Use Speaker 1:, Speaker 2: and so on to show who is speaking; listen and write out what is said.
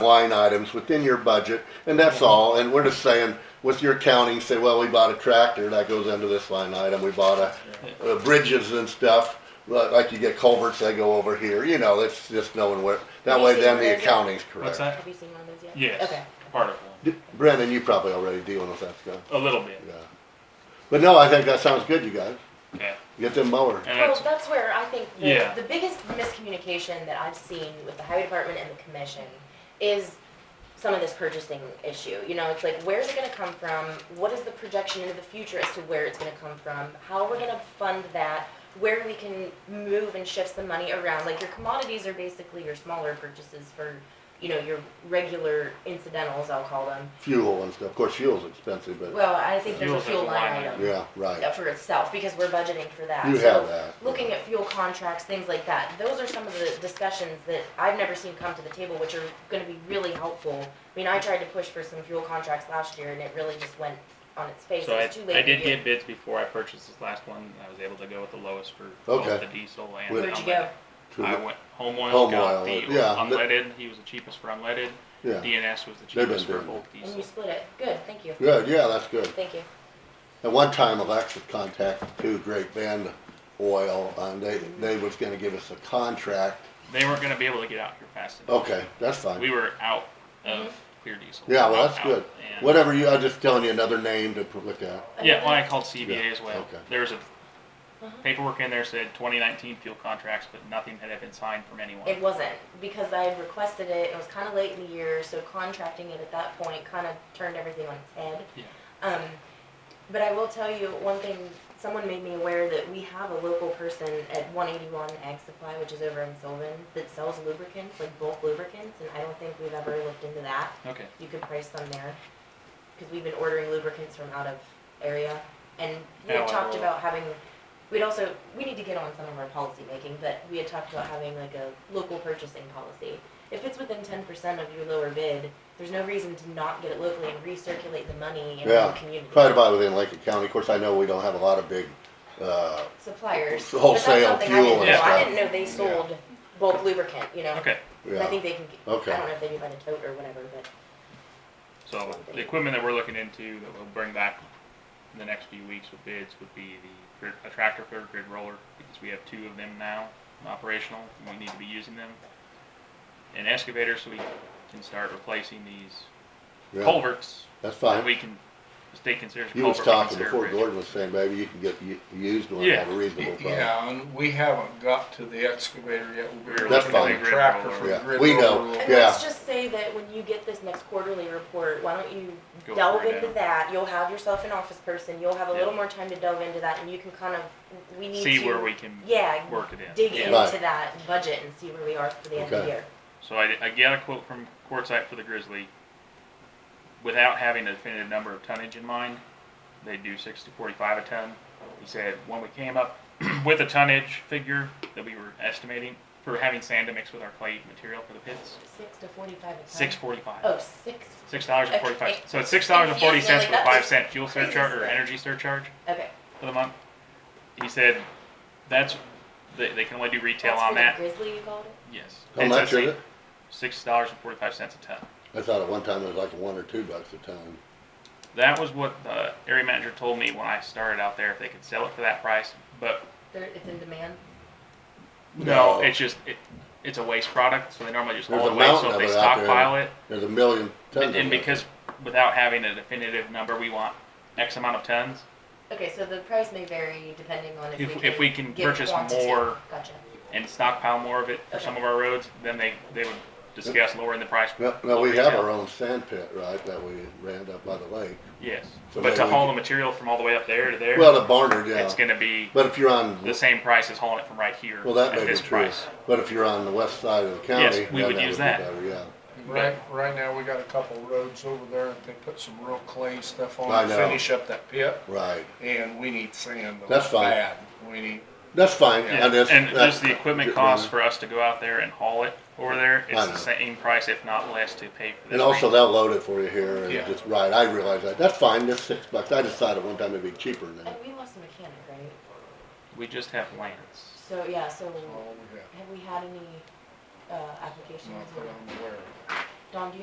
Speaker 1: line items within your budget, and
Speaker 2: Mm-hmm.
Speaker 1: that's all, and we're just saying, with your accounting, say, well, we bought a tractor, that goes into this line item, we bought a, uh, bridges and stuff, li- like you get culverts, they go over here, you know, it's just knowing where, that way then the accounting's correct.
Speaker 2: What's that?
Speaker 3: Have you seen one of those yet?
Speaker 2: Yes.
Speaker 3: Okay.
Speaker 2: Part of one.
Speaker 1: D- Brendan, you probably already dealing with that stuff,
Speaker 2: A little bit.
Speaker 1: yeah. But no, I think that sounds good, you guys,
Speaker 2: Yeah.
Speaker 1: get them mower.
Speaker 2: And
Speaker 3: Well,
Speaker 2: that's,
Speaker 3: that's where I think
Speaker 2: Yeah.
Speaker 3: the, the biggest miscommunication that I've seen with the highway department and the commission is some of this purchasing issue. You know, it's like, where's it gonna come from? What is the projection into the future as to where it's gonna come from? How we're gonna fund that? Where we can move and shift some money around? Like, your commodities are basically your smaller purchases for, you know, your regular incidentals, I'll call them.
Speaker 1: Fuel and stuff, of course, fuel's expensive, but,
Speaker 3: Well, I think there's a
Speaker 2: Fuel's like
Speaker 3: fuel
Speaker 2: a
Speaker 3: line
Speaker 2: line
Speaker 3: item.
Speaker 1: yeah, right,
Speaker 3: for itself, because we're budgeting for that.
Speaker 1: You
Speaker 3: So
Speaker 1: have that.
Speaker 3: Looking at fuel contracts, things like that, those are some of the discussions that I've never seen come to the table, which are gonna be really helpful. I mean, I tried to push for some fuel contracts last year and it really just went on its face,
Speaker 2: so
Speaker 3: it
Speaker 2: I,
Speaker 3: was too
Speaker 2: I
Speaker 3: late
Speaker 2: did
Speaker 3: for you.
Speaker 2: get bids before I purchased this last one. and I was able to go with the lowest for
Speaker 1: Okay.
Speaker 2: both the diesel and
Speaker 1: Where'd
Speaker 2: the
Speaker 3: you go?
Speaker 2: unleaded. I
Speaker 1: To-
Speaker 2: went home oil,
Speaker 1: Home
Speaker 2: got
Speaker 1: oil,
Speaker 2: the
Speaker 1: yeah.
Speaker 2: unleaded. He was the cheapest for unleaded.
Speaker 1: yeah,
Speaker 2: DNS was the
Speaker 1: They've been
Speaker 2: cheapest for
Speaker 1: doing
Speaker 2: both
Speaker 3: And you
Speaker 2: diesel.
Speaker 3: split it, good, thank you,
Speaker 1: good, yeah, that's good.
Speaker 3: thank you.
Speaker 1: At one time, Alexa contacted two Great Bend Oil, and they, they was gonna give us a contract.
Speaker 2: They weren't going to be able to get out here fast enough.
Speaker 1: Okay, that's
Speaker 2: We
Speaker 1: Oh, fine.
Speaker 2: were out of
Speaker 3: Mm-hmm.
Speaker 2: clear diesel.
Speaker 1: Yeah, well,
Speaker 2: Out,
Speaker 1: that's
Speaker 2: out,
Speaker 1: good.
Speaker 2: and-
Speaker 1: Whatever you, I'm just telling you another name to look at.
Speaker 2: Yeah, when I called CBA
Speaker 1: Yeah,
Speaker 2: as well,
Speaker 1: okay.
Speaker 2: there was a
Speaker 3: Uh-huh.
Speaker 2: paperwork in there said 2019 fuel contracts, but nothing had been signed from anyone.
Speaker 3: It wasn't, because I had requested it, it was kinda late in the year, so contracting it at that point kinda turned everything on its head.
Speaker 2: Yeah.
Speaker 3: Um, but I will tell you one thing, someone made me aware that we have a local person at one eighty-one Ag Supply, which is over in Sylvan, that sells lubricants, like bulk lubricants, and I don't think we've ever looked into that.
Speaker 2: Okay.
Speaker 3: You could price them there, cause we've been ordering lubricants from out of area, and we
Speaker 2: Yeah,
Speaker 3: had
Speaker 2: well,
Speaker 3: talked
Speaker 2: well.
Speaker 3: about having, we'd also, we need to get on some of our policy making, but we had talked about having like a local purchasing policy. If it's within ten percent of your lower bid, there's no reason to not get it locally and recirculate the money in
Speaker 1: Yeah,
Speaker 3: the community.
Speaker 1: Try to buy within Lincoln County. Of course, I know we don't have a lot of big, uh,
Speaker 3: Suppliers.
Speaker 1: It's wholesale
Speaker 3: But that's something
Speaker 1: fuel
Speaker 3: I didn't
Speaker 2: and
Speaker 3: know,
Speaker 1: stuff.
Speaker 3: I didn't know they sold bulk lubricant, you know?
Speaker 2: Okay.
Speaker 3: I
Speaker 1: yeah,
Speaker 3: think they can, get-
Speaker 1: Okay.
Speaker 3: I don't know if they do by the tote or whatever, but
Speaker 2: So the equipment that we're looking into that we'll bring back in the next few weeks with bids would be the grid, a tractor for a grid roller because we have two of them now operational and we need to be using them. An excavator so we can start replacing these
Speaker 1: yeah,
Speaker 2: culverts
Speaker 1: that's
Speaker 2: that
Speaker 1: fine.
Speaker 2: we can state considered
Speaker 1: You was
Speaker 2: culvert, we
Speaker 1: talking
Speaker 2: consider
Speaker 1: before
Speaker 2: bridge.
Speaker 1: Gordon was saying, maybe you can get u- used one
Speaker 2: Yeah.
Speaker 1: at a reasonable price.
Speaker 4: Yeah, and we haven't got to the excavator yet. We're
Speaker 2: That's
Speaker 4: looking
Speaker 1: fine.
Speaker 4: at a tractor for
Speaker 1: Yeah,
Speaker 4: grid
Speaker 1: we know.
Speaker 4: overload.
Speaker 3: And
Speaker 1: Yeah.
Speaker 3: let's just say that when you get this next quarterly report, why don't you
Speaker 2: Go
Speaker 3: delve
Speaker 2: through it
Speaker 3: into
Speaker 2: now.
Speaker 3: that? You'll have yourself an office person, you'll have a little
Speaker 2: Yeah.
Speaker 3: more time to delve into that, and you can kind of, we need to.
Speaker 2: See where we can
Speaker 3: Yeah,
Speaker 2: work it in.
Speaker 3: dig
Speaker 2: Yeah.
Speaker 1: Right.
Speaker 3: into that budget and see where we are for the end of
Speaker 1: Okay.
Speaker 3: the year.
Speaker 2: So I, I got a quote from Quartzite for the Grizzly. Without having a definitive number of tonnage in mind, they do six to forty-five a ton. He said when we came up with a tonnage figure that we were estimating for having sand to mix with our clay material for the pits,
Speaker 3: Six to forty-five a ton.
Speaker 2: six forty-five.
Speaker 3: Oh, six,
Speaker 2: Six dollars and
Speaker 3: okay,
Speaker 2: forty-five.
Speaker 3: it-
Speaker 2: So it's six dollars and forty cents
Speaker 3: confused
Speaker 2: for a
Speaker 3: me, like,
Speaker 2: five
Speaker 3: that's
Speaker 2: cent fuel
Speaker 3: crazy
Speaker 2: surcharge or
Speaker 3: stuff.
Speaker 2: energy surcharge
Speaker 3: okay.
Speaker 2: for the month. He said that's they, they can only do retail
Speaker 3: That's
Speaker 2: on
Speaker 3: for the
Speaker 2: that.
Speaker 3: Grizzly, you called it?
Speaker 2: Yes.
Speaker 1: How
Speaker 2: It's
Speaker 1: much
Speaker 2: actually
Speaker 1: is it?
Speaker 2: Six dollars and forty-five cents a ton.
Speaker 1: I thought at one time it was like one or two bucks a ton.
Speaker 2: That was what the area manager told me when I started out there, if they could sell it for that price, but
Speaker 3: There, it's in demand?
Speaker 2: no, it's just, it, it's a waste product, so they normally just
Speaker 1: There's
Speaker 2: haul
Speaker 1: a
Speaker 2: it away,
Speaker 1: mountain
Speaker 2: so if
Speaker 1: of
Speaker 2: they
Speaker 1: it out there.
Speaker 2: stockpile it,
Speaker 1: There's a million tons of
Speaker 2: and,
Speaker 1: it.
Speaker 2: and because without having a definitive number, we want X amount of tons,
Speaker 3: Okay, so the price may vary depending on if we
Speaker 2: If-
Speaker 3: can.
Speaker 2: if we can
Speaker 3: get
Speaker 2: purchase
Speaker 3: quantity.
Speaker 2: more-
Speaker 3: Gotcha.
Speaker 2: and stockpile more of it for
Speaker 3: Okay.
Speaker 2: some of our roads, then they, they would discuss lowering the price.
Speaker 1: No, no, we have our own sand pit, right, that we ran up by the lake.
Speaker 2: Yes,
Speaker 1: So
Speaker 2: but
Speaker 1: maybe
Speaker 2: to
Speaker 1: we
Speaker 2: haul the
Speaker 1: could-
Speaker 2: material from all the way up there to there,
Speaker 1: Well, the barnard,
Speaker 2: it's
Speaker 1: yeah.
Speaker 2: gonna be
Speaker 1: But if you're on
Speaker 2: the same price as hauling it from right here
Speaker 1: Well, that
Speaker 2: at
Speaker 1: may be
Speaker 2: this
Speaker 1: true,
Speaker 2: price.
Speaker 1: but if you're on the west side of the
Speaker 2: Yes,
Speaker 1: county,
Speaker 2: we
Speaker 1: then
Speaker 2: would
Speaker 1: that
Speaker 2: use
Speaker 1: be
Speaker 2: that.
Speaker 1: better, yeah.
Speaker 4: Right, right now, we got a couple roads over there, and they put some real clay stuff
Speaker 1: I
Speaker 4: on to
Speaker 1: know.
Speaker 4: finish up that pit,
Speaker 1: Right,
Speaker 4: and we need sand.
Speaker 1: That's fine.
Speaker 4: Bad, we need,
Speaker 1: that's fine.
Speaker 2: Yeah,
Speaker 1: I just-
Speaker 2: and
Speaker 1: that-
Speaker 2: just the equipment cost for us to go out there and haul it over there,
Speaker 1: I
Speaker 2: it's
Speaker 1: know.
Speaker 2: the same price, if not less, to pay for this.
Speaker 1: And also
Speaker 2: thing.
Speaker 1: they'll load it for you here and
Speaker 4: Yeah.
Speaker 1: just, right, I realize that, that's fine, that's six bucks, I decided one time it'd be cheaper than
Speaker 3: And
Speaker 1: that.
Speaker 3: we lost a mechanic, right?
Speaker 2: We just have Lance.
Speaker 3: So, yeah, so
Speaker 2: Oh.
Speaker 4: all we have.
Speaker 3: have we had any, uh, applications
Speaker 4: Not that
Speaker 3: or?
Speaker 4: I'm aware of.
Speaker 3: Don, do you